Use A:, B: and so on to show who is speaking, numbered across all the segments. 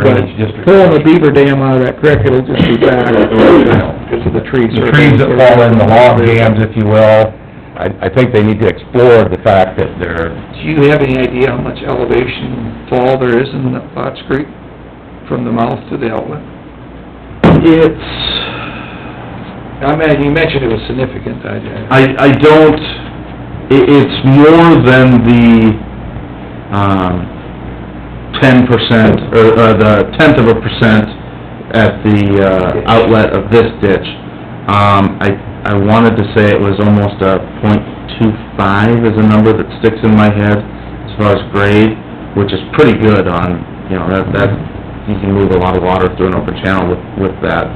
A: drainage district.
B: Pulling the beaver dam out of that creek, it'll just be bad, because of the trees.
A: The trees that fall in, the log jams, if you will, I, I think they need to explore the fact that they're,
B: Do you have any idea how much elevation fall there is in Potts Creek from the mouth to the outlet? It's, I mean, you mentioned it was significant, I,
C: I, I don't, i it's more than the, um, ten percent, or, or the tenth of a percent at the, uh, outlet of this ditch. Um, I, I wanted to say it was almost a point two five is a number that sticks in my head as far as grade, which is pretty good on, you know, that, that, you can move a lot of water through an open channel with, with that.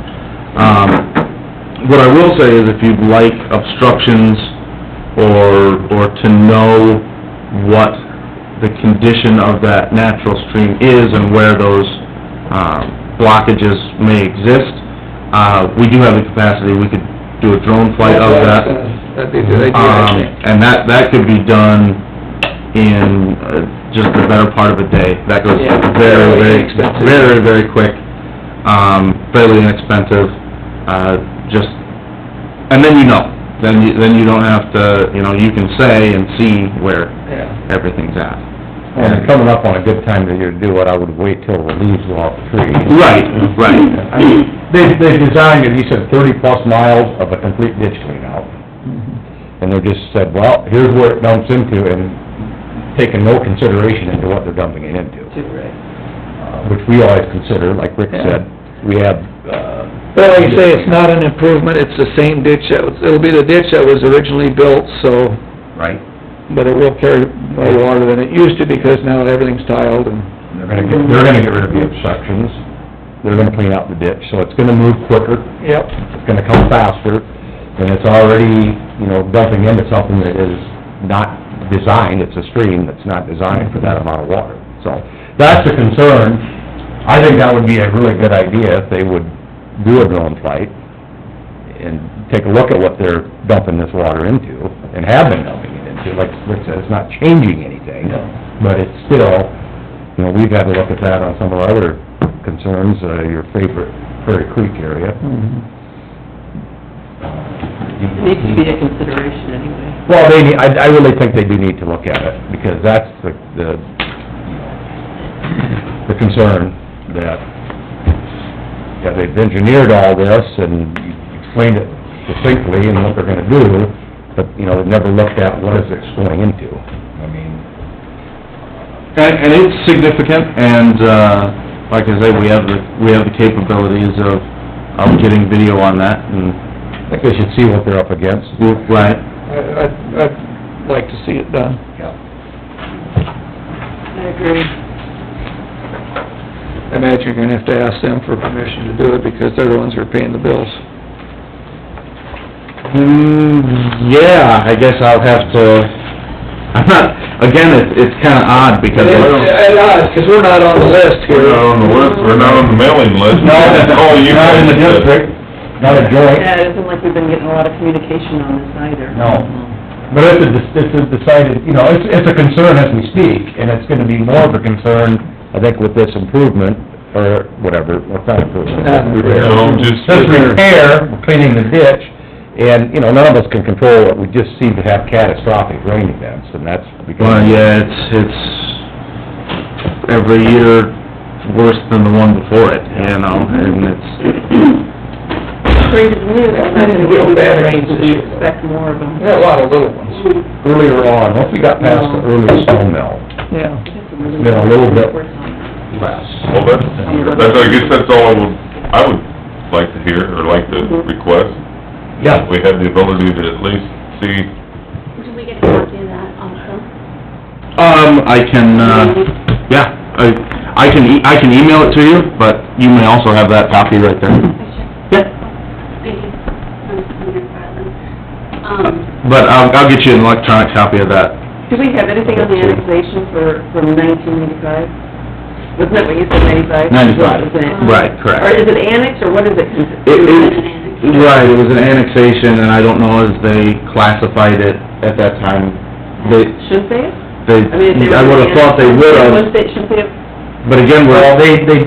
C: Um, what I will say is if you'd like obstructions or, or to know what the condition of that natural stream is and where those, um, blockages may exist, uh, we do have the capacity, we could do a drone flight of that.
B: That'd be a good idea, I
C: Um,
B: think.
C: and that, that could be done in uh, just the better part of a day. That goes
B: Yeah.
C: very, very,
B: Inexpensive.
C: very, very quick, um, fairly inexpensive, uh, just, and then you know. Then you, then you don't have to, you know, you can say and see where
B: Yeah.
C: everything's at.
A: and they're coming up on a good time of year to do it, I would wait till the leaves go off the trees.
C: Right, right.
A: I mean, they, they designed it, he said thirty plus miles of a complete ditch clean out. And they just said, well, here's where it dumps into and taking no consideration into what they're dumping it into. Uh, Which we always consider, like Rick said, we have, uh...
B: Well, like you say, it's not an improvement, it's the same ditch that was, it'll be the ditch that was originally built, so,
C: Right.
B: but it will carry more water than it used to because now everything's tiled and...
A: They're gonna get, they're gonna get rid of the obstructions, they're gonna clean out the ditch, so it's gonna move quicker,
B: Yep.
A: it's gonna come faster, and it's already, you know, dumping into something that is not designed, it's a stream that's not designed for that amount of water. So, that's a concern. I think that would be a really good idea if they would do a drone flight and take a look at what they're dumping this water into, and have been dumping it into, like Rick said, it's not changing anything. But it's still, you know, we've had to look at that on some of our other concerns, uh, your favorite Prairie Creek area.
D: It needs to be a consideration anyway.
A: Well, they, need- I, I really think they do need to look at it, because that's the, the, the concern that, yeah, they've engineered all this and explained it succinctly and what they're gonna do, but, you know, they've never looked at what is it's going into. I mean,
C: And, and it's significant, and, uh, like I say, we have the, we have the capabilities of, of getting video on that, and,
A: I think they should see what they're up against.
C: right.
B: I- I'd, I'd like to see it done.
D: I agree.
B: I imagine you're gonna have to ask them for permission to do it because they're the ones who are paying the bills.
C: Hmm, yeah, I guess I'll have to, I'm not, again, it's, it's kinda odd because it's...
B: because we're not on the list
E: We're not on the list, we're not on the mailing list. Oh, you
A: Not in the
E: guys, uh,
A: district, not a joint.
D: Yeah, it isn't like we've been getting a lot of communication on this either.
A: No. But it's a, it's a decided, you know, it's, it's a concern as we speak, and it's gonna be more of a concern, I think, with this improvement, or whatever, or not improvement.
B: Uh, repair.
E: No, just-
A: This repair, cleaning the ditch, and, you know, none of us can control it, we just seem to have catastrophic rain events, and that's
C: Well,
A: because...
C: yeah, it's, it's every year worse than the one before it, you know, and it's,
D: Spring is new, that's not gonna get any better, we expect more of them.
B: We got a lot of little ones.
A: Earlier on, once we got past the early snowmelt,
B: Yeah.
D: It's
A: been a little bit-
E: Well,
A: less.
E: that's, that's, I guess that's all I would, I would like to hear, or like to request.
A: Yeah,
E: We have the ability to at least see,
F: Do we get to copy of that also?
C: um, I can, uh, yeah, I, I can, e- I can email it to you, but you may also have that copy right there.
F: I should,
C: Yeah.
F: thank you. I'm, I'm gonna file them. Um,
C: But I'll, I'll get you an electronic copy of that.
D: Do we have anything on the annexation for, from nineteen ninety-five? Wasn't that what you said, ninety-five?
C: 95,
D: Wasn't it?
C: right, correct.
D: Or is it annexed, or what is it? considered?
C: It, it,
F: An
C: right, it was an annexation, and I don't know if they classified it at that time. They,
D: Shouldn't they?
C: they,
D: I mean, if they were.
C: I would've thought they
D: annexed,
C: would've,
D: Shouldn't they, shouldn't they have
C: but again, we're,
A: well, they, they